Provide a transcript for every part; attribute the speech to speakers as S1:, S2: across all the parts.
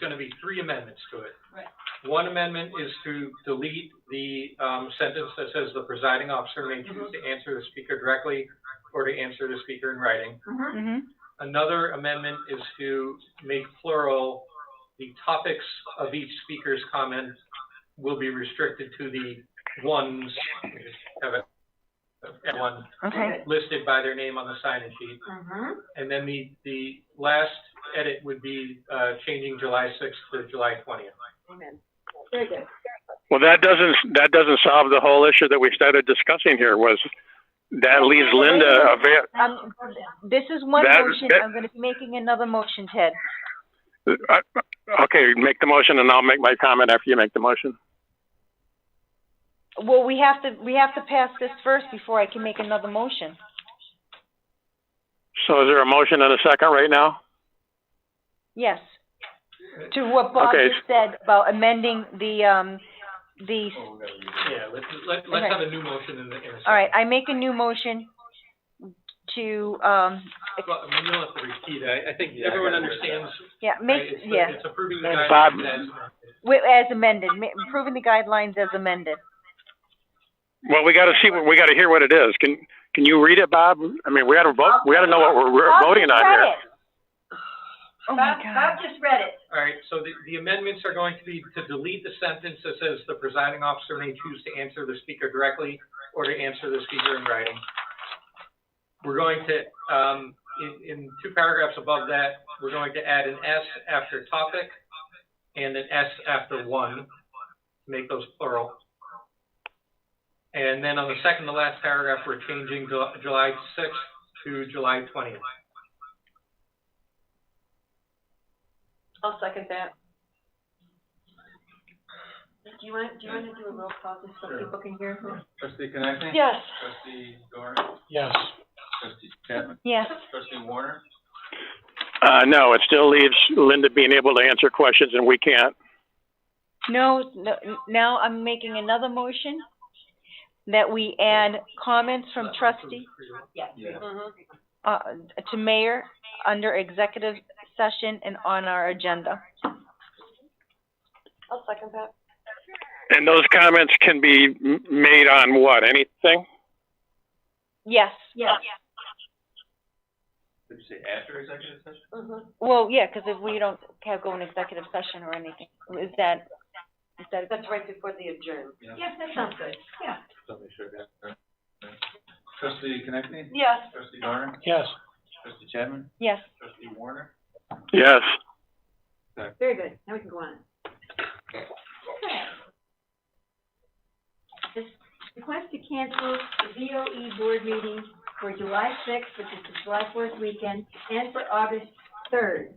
S1: gonna be three amendments to it.
S2: Right.
S1: One amendment is to delete the, um, sentence that says the presiding officer may choose to answer the speaker directly or to answer the speaker in writing.
S2: Mhm.
S3: Mm-hmm,
S1: Another amendment is to make plural, the topics of each speaker's comment will be restricted to the ones, we just have it, everyone
S3: okay,
S1: listed by their name on the sign-in sheet.
S2: Mhm.
S1: And then the, the last edit would be, uh, changing July sixth to July twentieth.
S2: Very good.
S4: Well, that doesn't, that doesn't solve the whole issue that we started discussing here was that leaves Linda a ver-
S3: um, this is one
S4: That-
S3: motion,
S4: that-
S3: I'm gonna be making another motion, Ted.
S4: uh, okay, make the motion and I'll make my comment after you make the motion.
S3: Well, we have to, we have to pass this first before I can make another motion.
S4: So is there a motion and a second right now?
S3: Yes. To what Bob
S4: Okay.
S3: just said about amending the, um, the,
S1: Yeah, let's, let, let's
S3: Okay.
S1: have a new motion in the, in a second.
S3: all right, I make a new motion to, um,
S1: Well, I mean, you don't have to repeat, it. I, I think
S5: Yeah, I
S1: everyone
S5: got it.
S1: understands,
S3: yeah,
S1: right,
S3: make,
S1: it's, the-
S3: yeah,
S1: it's approving the
S3: And
S4: Bob-
S1: guidelines as-
S3: wi- as amended, ma- approving the guidelines as amended.
S4: Well, we gotta see, what we gotta hear what it is. Can, can you read it, Bob? I mean, we gotta vote, we gotta know what we're, we're
S3: Bob
S4: voting
S3: just
S4: on
S3: read
S4: here.
S3: it. Oh my
S2: Bob,
S3: God.
S2: Bob just read it.
S1: All right, so the, the amendments are going to be to delete the sentence that says the presiding officer may choose to answer the speaker directly or to answer the speaker in writing. We're going to, um, in, in two paragraphs above that, we're going to add an S after topic and an S after one, to make those plural. And then on the second to last paragraph, we're changing Ju- July sixth to July twentieth.
S2: I'll second that. Do you want, do you want to do a roll call just so
S5: Sure.
S2: people can hear? who-
S5: Trustee Connectney?
S3: Yes.
S5: Trustee Doran?
S1: Yes.
S5: Trustee Chapman?
S3: Yes,
S5: Trustee Warner?
S4: Uh, no, it still leaves Linda being able to answer questions and we can't.
S3: no, no, now I'm making another motion that we add comments from trustee,
S2: Yes.
S5: Yeah.
S2: Mhm.
S3: uh, to mayor under executive session and on our agenda.
S2: I'll second that.
S4: And those comments can be m- made on what, anything?
S3: Yes,
S2: Yes.
S5: Did you say after executive session?
S2: Mhm.
S3: Mm-hmm. well, yeah, cause if we don't have go in executive session or anything, is that, is that,
S2: That's right before the adjourn.
S5: Yeah.
S2: Yes, that sounds good. Yeah.
S5: Somebody should have got that. Trustee Connectney?
S2: Yes.
S5: Trustee Doran?
S1: Yes.
S5: Trustee Chapman?
S3: yes,
S5: Trustee Warner?
S4: Yes.
S2: Very good. Now we can go on. Okay. This request to cancel the VOE board meeting for July sixth, which is the July fourth weekend, and for August third.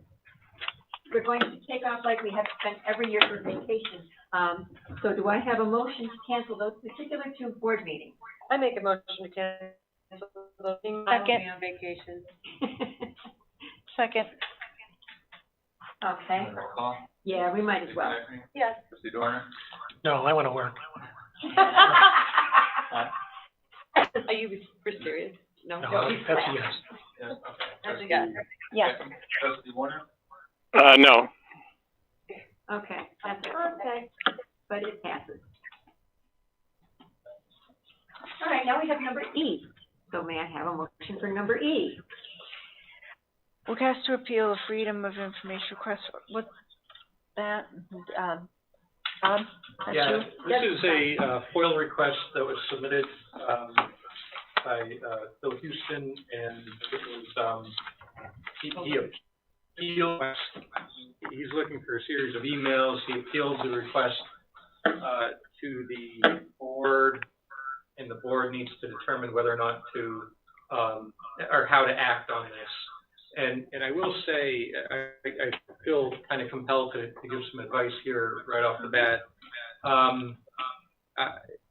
S2: We're going to take off like we have spent every year for vacation. Um, so do I have a motion to cancel those particular two board meetings?
S6: I make a motion to cancel the meeting. I will be
S3: Second.
S6: on vacation.
S3: second,
S2: Okay,
S5: Roll call.
S2: yeah, we might as
S5: Trustee
S2: well.
S5: Connectney?
S6: Yes.
S5: Trustee Doran?
S1: No, I wanna work.
S6: Are you, for serious? No?
S1: yes.
S5: Yes, okay.
S6: That's a
S5: Trustee
S6: yes.
S3: yes.
S5: Chapman? Trustee Warner?
S4: Uh, no.
S2: Okay, that's it. Okay. But it passes. All right, now we have number E. So may I have a motion for number E?
S3: Request to appeal the freedom of information request, what, that, um, Bob, that's you?
S1: Yeah, this is a uh, FOIL request that was submitted um, by uh, Phil Houston, and it was, um, he, he appealed, he's looking for a series of emails, he appealed the request uh, to the board, and the board needs to determine whether or not to, um, or how to act on this. And, and I will say, I, I I feel kind of compelled to, to give some advice here right off the bat. Um, I,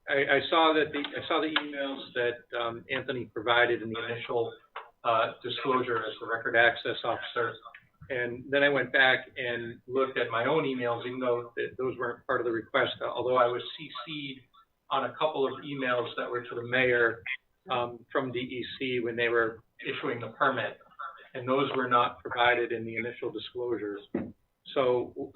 S1: I I saw that the, I saw the emails that, um, Anthony provided in the initial, uh, disclosure as the record access officer. And then I went back and looked at my own emails, even though th- those weren't part of the request, although I was CC'd on a couple of emails that were to the mayor, um, from DEC when they were issuing the permit. And those were not provided in the initial disclosures. So